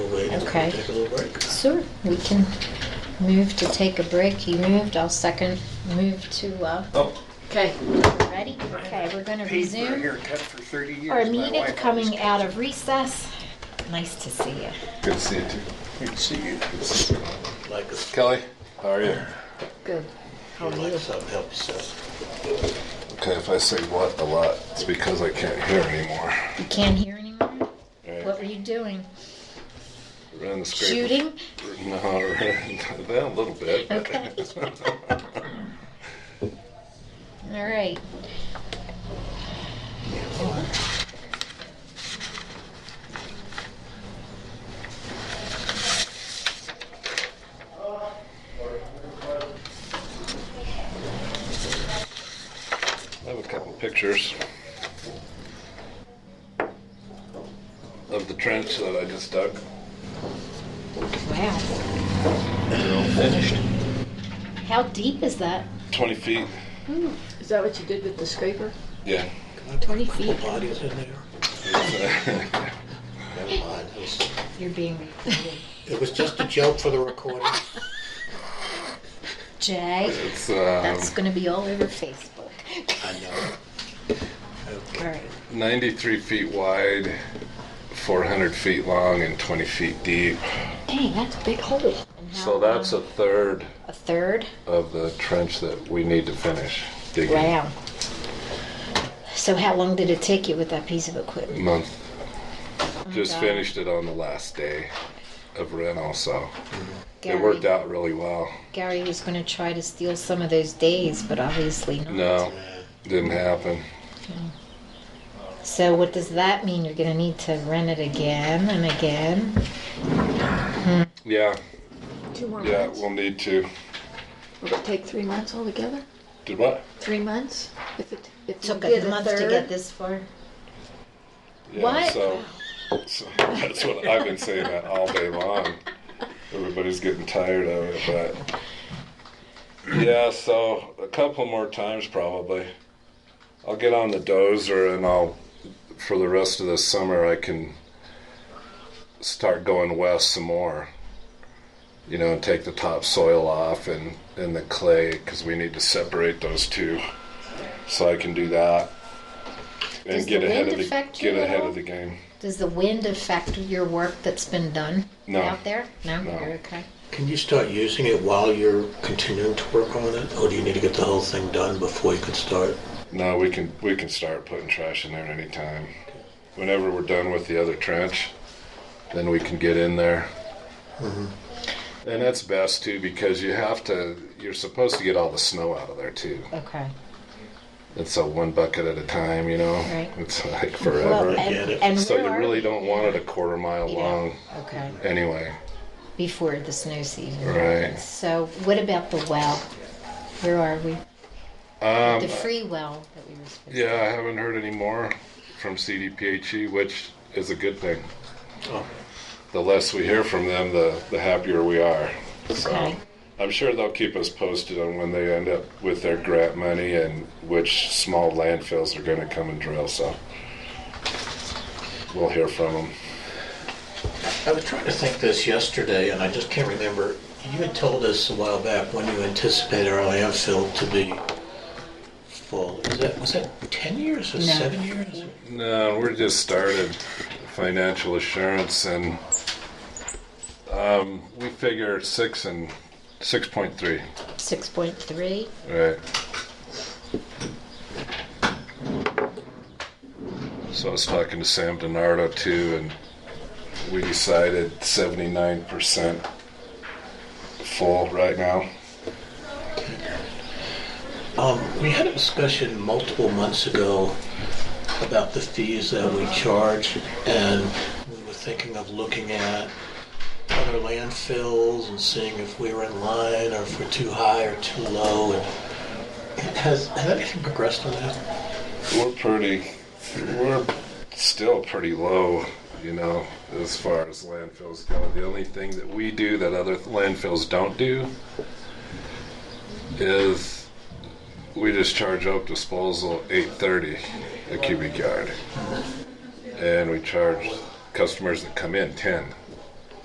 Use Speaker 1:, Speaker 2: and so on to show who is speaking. Speaker 1: think it's
Speaker 2: Okay.
Speaker 1: gonna take a little break.
Speaker 2: Sure, we can move to take a break. He moved, I'll second, move to, uh,
Speaker 1: Oh,
Speaker 2: okay, ready? Okay, we're gonna resume
Speaker 1: haircut for 30 years.
Speaker 2: our meeting coming out of recess. Nice to see you.
Speaker 3: Good to see you too.
Speaker 1: Good to see you. Like us,
Speaker 3: Kelly, how are you?
Speaker 2: Good. How are
Speaker 1: like
Speaker 2: you?
Speaker 1: us, helps us.
Speaker 3: Okay, if I say what a lot, it's because I can't hear anymore.
Speaker 2: You can't hear anymore? What
Speaker 3: Right.
Speaker 2: were you doing?
Speaker 3: Ran the scraper.
Speaker 2: Shooting?
Speaker 3: No, ran- well, a little bit. but-
Speaker 2: Okay. All right.
Speaker 3: I have a couple pictures of the trench that I just dug.
Speaker 2: Wow.
Speaker 1: They're all finished.
Speaker 2: How deep is that?
Speaker 3: 20 feet.
Speaker 4: Is that what you did with the scraper?
Speaker 3: Yeah.
Speaker 1: Can I put
Speaker 2: 20
Speaker 1: a couple
Speaker 2: feet.
Speaker 1: bodies in there? Never mind. It was,
Speaker 2: You're being recorded.
Speaker 1: it was just a joke for the recording.
Speaker 2: Jay,
Speaker 3: it's
Speaker 2: that's
Speaker 3: um,
Speaker 2: gonna be all over Facebook.
Speaker 1: I know.
Speaker 2: All right.
Speaker 3: 93 feet wide, 400 feet long, and 20 feet deep.
Speaker 2: Dang, that's a big hole. And how
Speaker 3: So that's a
Speaker 2: long?
Speaker 3: third
Speaker 2: A third?
Speaker 3: of the trench that we need to finish digging.
Speaker 2: Wow. So how long did it take you with that piece of equipment?
Speaker 3: month. Just
Speaker 2: Oh God.
Speaker 3: finished it on the last day of rent also.
Speaker 2: Gary,
Speaker 3: It worked out really well.
Speaker 2: Gary was gonna try to steal some of those days, but obviously not.
Speaker 3: No,
Speaker 1: Yeah.
Speaker 3: didn't happen.
Speaker 2: So what does that mean? You're gonna need to rent it again and again?
Speaker 3: Yeah,
Speaker 4: Two more
Speaker 3: yeah,
Speaker 4: months?
Speaker 3: we'll need to.
Speaker 4: Will it take three months altogether?
Speaker 3: Did what?
Speaker 4: Three months? If it, if you
Speaker 2: Took
Speaker 4: did
Speaker 2: a month to
Speaker 4: third?
Speaker 2: get this far.
Speaker 3: Yeah,
Speaker 2: What?
Speaker 3: So, so that's what I've been saying that all day long. Everybody's getting tired of it, but yeah. So a couple more times probably. I'll get on the dozer and I'll for the rest of the summer I can start going west some more. You know, and take the topsoil off and and the clay because we need to separate those two. So I can do that and
Speaker 2: Does
Speaker 3: get
Speaker 2: the
Speaker 3: ahead
Speaker 2: wind
Speaker 3: of the
Speaker 2: affect you
Speaker 3: get
Speaker 2: at
Speaker 3: ahead
Speaker 2: all?
Speaker 3: of the game.
Speaker 2: Does the wind affect your work that's been done
Speaker 3: No.
Speaker 2: out there? No,
Speaker 3: No.
Speaker 2: you're okay.
Speaker 1: Can you start using it while you're continuing to work on it? Or do you need to get the whole thing done before you can start?
Speaker 3: No, we can we can start putting trash in there anytime. Whenever we're done with the other trench, then we can get in there. And that's best too because you have to. You're supposed to get all the snow out of there too.
Speaker 2: Okay.
Speaker 3: It's a one bucket at a time, you know.
Speaker 2: Right.
Speaker 3: It's like
Speaker 2: Well,
Speaker 3: forever.
Speaker 1: get
Speaker 2: and,
Speaker 1: it.
Speaker 2: and
Speaker 3: so
Speaker 2: where
Speaker 3: you
Speaker 2: are
Speaker 3: really
Speaker 2: we?
Speaker 3: don't want it a quarter mile
Speaker 2: Yeah.
Speaker 3: long
Speaker 2: Okay.
Speaker 3: anyway.
Speaker 2: Before the snow season.
Speaker 3: Right.
Speaker 2: So what about the well? Where are we?
Speaker 3: Um,
Speaker 2: The free well that we were supposed
Speaker 3: yeah, I haven't heard any more from CDPHE, E, which is a good thing.
Speaker 1: Oh,
Speaker 3: the less we hear from them, the, the happier we are. So
Speaker 2: Okay.
Speaker 3: I'm sure they'll keep us posted on when they end up with their grant money and which small landfills are going to come and drill. So we'll hear from them.
Speaker 1: I was trying to think this yesterday, and I just can't remember. You had told us a while back when you anticipated our landfill to be full. Is that, was that 10 years or
Speaker 2: No.
Speaker 1: seven years?
Speaker 3: No, we're just started financial assurance, and um, we figure six and six point three.
Speaker 2: to. Six point three.
Speaker 3: Right. So I was talking to Sam DiNardo too, and we decided 79% full right now.
Speaker 1: Um, we had a discussion multiple months ago about the fees that we charge, and we were thinking of looking at other landfills and seeing if we were in line or if we're too high or too low. And has, has anything progressed on that?
Speaker 3: We're pretty, we're still pretty low, you know, as far as landfills go. The only thing that we do that other landfills don't do is we just charge up disposal 830 a cubic yard. And we charge customers that come in 10.